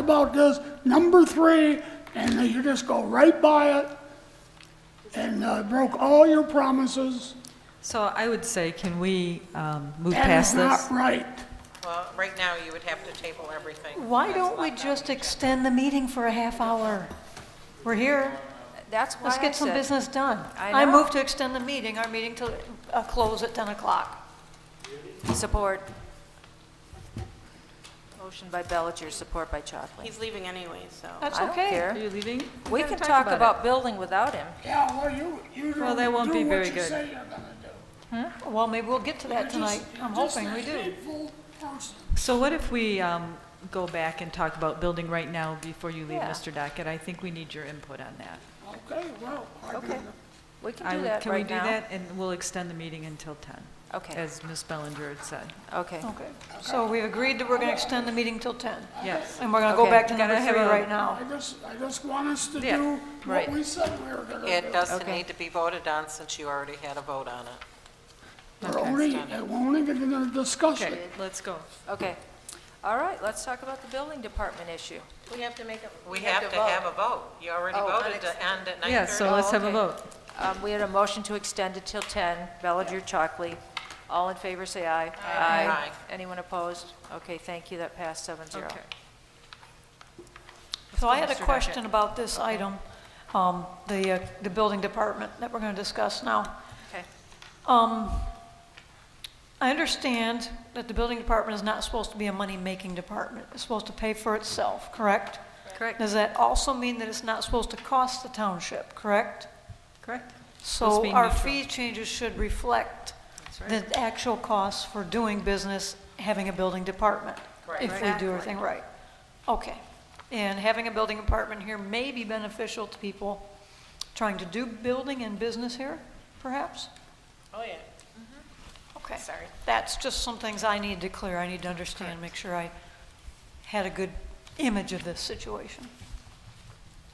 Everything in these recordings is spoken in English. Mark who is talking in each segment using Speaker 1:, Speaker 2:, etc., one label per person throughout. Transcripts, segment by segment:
Speaker 1: about this, number three, and then you just go right by it, and uh, broke all your promises,
Speaker 2: So I would say, can we um, move
Speaker 1: and it's
Speaker 2: past
Speaker 1: not
Speaker 2: this?
Speaker 1: right.
Speaker 3: Well, right now, you would have to table everything.
Speaker 2: Why don't we just extend the meeting for a half hour? We're here.
Speaker 4: That's why I
Speaker 2: Let's
Speaker 4: said.
Speaker 2: get some business done.
Speaker 4: I
Speaker 2: I
Speaker 4: know.
Speaker 2: move to extend the meeting, our meeting to uh, close at 10 o'clock.
Speaker 4: Support. Motion by Bellinger, support by Chalkley.
Speaker 5: He's leaving anyway, so.
Speaker 2: That's
Speaker 4: I don't care.
Speaker 2: okay.
Speaker 4: Are you
Speaker 2: leaving?
Speaker 4: We can talk about building without him.
Speaker 1: Yeah, well, you, you
Speaker 2: Well, that
Speaker 1: don't
Speaker 2: won't be
Speaker 1: do
Speaker 2: very
Speaker 1: what you
Speaker 2: good.
Speaker 1: say you're gonna do.
Speaker 2: Well, maybe we'll get to that
Speaker 1: You're
Speaker 2: tonight.
Speaker 1: just-
Speaker 2: I'm
Speaker 1: you're just
Speaker 2: hoping
Speaker 1: a
Speaker 2: we do.
Speaker 1: hateful person.
Speaker 2: So what if we um, go back and talk about building right now before you leave,
Speaker 4: Yeah.
Speaker 2: Mr. Dockett? I think we need your input on that.
Speaker 1: Okay, well, I
Speaker 4: Okay.
Speaker 1: mean,
Speaker 4: We can
Speaker 2: I
Speaker 4: do
Speaker 2: would-
Speaker 4: that right now.
Speaker 2: Can we do that? And we'll extend the meeting until 10,
Speaker 4: Okay,
Speaker 2: as Ms. Bellinger had said.
Speaker 4: okay.
Speaker 2: Okay, so we agreed that we're going to extend the meeting till 10, Yes.
Speaker 4: And we're
Speaker 2: I'll go back to number three right
Speaker 1: I
Speaker 2: now.
Speaker 1: just, I just want us to
Speaker 2: Yeah,
Speaker 1: do what
Speaker 4: right.
Speaker 1: we said we were gonna do.
Speaker 3: It doesn't
Speaker 4: Okay.
Speaker 3: need to be voted on since you already had a vote on it.
Speaker 1: We're only, we're only gonna discuss
Speaker 2: Okay,
Speaker 1: it.
Speaker 2: let's go.
Speaker 4: Okay. All right, let's talk about the building department issue.
Speaker 5: We have to make a.
Speaker 3: We have to have a vote. You already
Speaker 4: Oh,
Speaker 3: voted to end at 9:30.
Speaker 2: Yeah, so let's have a
Speaker 4: okay.
Speaker 2: vote.
Speaker 4: Um, We had a motion to extend it till 10. Bellinger, Chalkley. All in favor, say aye.
Speaker 3: Aye.
Speaker 4: Anyone opposed? Okay, thank you, that passed seven zero.
Speaker 2: Okay. So I had a
Speaker 4: Mr. Duckett.
Speaker 2: question about this item, um, the, uh, the building department that we're going to discuss now.
Speaker 4: Okay.
Speaker 2: Um, I understand that the building department is not supposed to be a money-making department. It's supposed to pay for itself, correct?
Speaker 4: Correct.
Speaker 2: Does that also mean that it's not supposed to cost the township, correct?
Speaker 6: Correct.
Speaker 2: So our fee changes should reflect the actual costs for doing business, having a building department, if we do everything right. Okay. And having a building department here may be beneficial to people trying to do building and business here, perhaps?
Speaker 5: Oh, yeah. Mm-hmm.
Speaker 2: Okay.
Speaker 5: Sorry.
Speaker 2: That's just some things I need to clear, I need to understand, make sure I had a good image of this situation.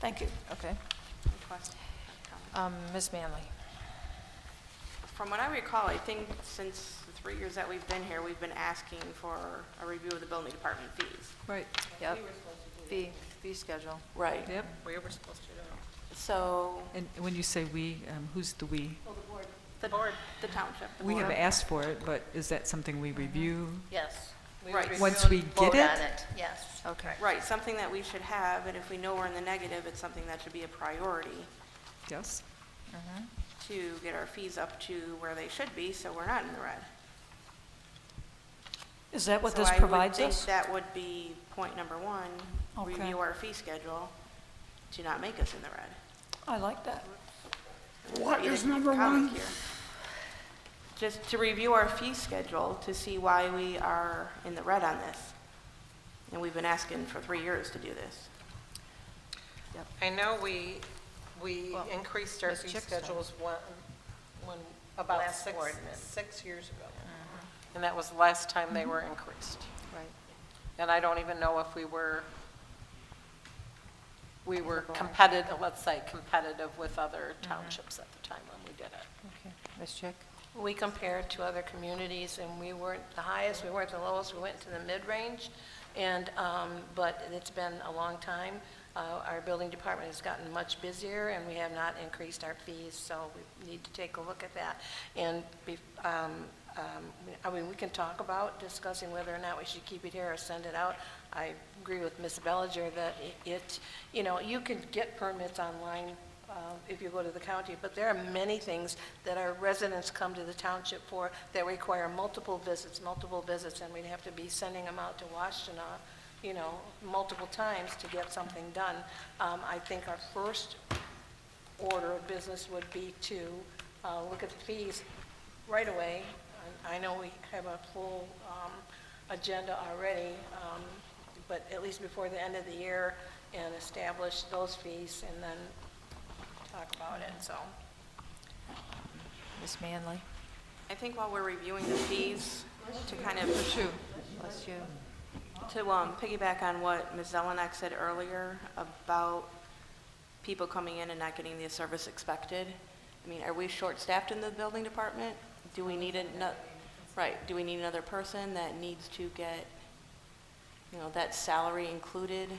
Speaker 2: Thank you.
Speaker 4: Okay. Um, Ms. Manley?
Speaker 5: From what I recall, I think since the three years that we've been here, we've been asking for a review of the building department fees.
Speaker 2: Right.
Speaker 4: Yep. Fee, fee schedule.
Speaker 5: Right.
Speaker 2: Yep.
Speaker 3: We were supposed to do it.
Speaker 5: So,
Speaker 6: And when you say "we," um, who's the "we"?
Speaker 5: the board, the township, the
Speaker 6: We have
Speaker 5: board.
Speaker 6: asked for it, but is that something we review?
Speaker 7: Yes. We
Speaker 5: Right.
Speaker 7: would
Speaker 6: Once we
Speaker 7: review and
Speaker 6: get
Speaker 7: vote on
Speaker 6: it?
Speaker 7: it, yes.
Speaker 4: Okay.
Speaker 5: Right, something that we should have, and if we know we're in the negative, it's something that should be a priority
Speaker 6: Yes?
Speaker 5: to get our fees up to where they should be, so we're not in the red.
Speaker 2: Is that what
Speaker 5: So
Speaker 2: this
Speaker 5: I would
Speaker 2: provides
Speaker 5: think
Speaker 2: us?
Speaker 5: That would be point number one,
Speaker 2: Okay.
Speaker 5: review our fee schedule to not make us in the red.
Speaker 2: I like that.
Speaker 1: What
Speaker 5: be the
Speaker 1: is number
Speaker 5: comment
Speaker 1: one?
Speaker 5: here. Just to review our fee schedule to see why we are in the red on this. And we've been asking for three years to do this.
Speaker 3: I know we, we
Speaker 4: Well,
Speaker 3: increased our
Speaker 4: Ms.
Speaker 3: fee
Speaker 4: Chick's
Speaker 3: schedules when, when, about
Speaker 7: Last
Speaker 3: six,
Speaker 7: board
Speaker 3: six years ago. And that was the last time they were increased.
Speaker 4: Right.
Speaker 3: And I don't even know if we were, we were competitive, let's say competitive with other townships at the time when we did it.
Speaker 4: Okay. Ms. Chick?
Speaker 8: We compared to other communities, and we weren't the highest, we weren't the lowest, we went to the mid-range, and, um, but it's been a long time. Uh, Our building department has gotten much busier, and we have not increased our fees, so we need to take a look at that. And, be- um, um, I mean, we can talk about discussing whether or not we should keep it here or send it out. I agree with Ms. Bellinger that it, you know, you can get permits online uh, if you go to the county, but there are many things that our residents come to the township for that require multiple visits, multiple visits, and we'd have to be sending them out to Washtenaw, you know, multiple times to get something done. Um, I think our first order of business would be to uh, look at the fees right away. I I know we have a full um, agenda already, um, but at least before the end of the year, and establish those fees, and then talk about it, so.
Speaker 4: Ms. Manley?
Speaker 5: I think while we're reviewing the fees, to kind of
Speaker 4: Bless you.
Speaker 5: To um, piggyback on what Ms. Zelenak said earlier about people coming in and not getting the service expected, I mean, are we short-staffed in the building department? Do we need another, right, do we need another person that needs to get, you know, that salary included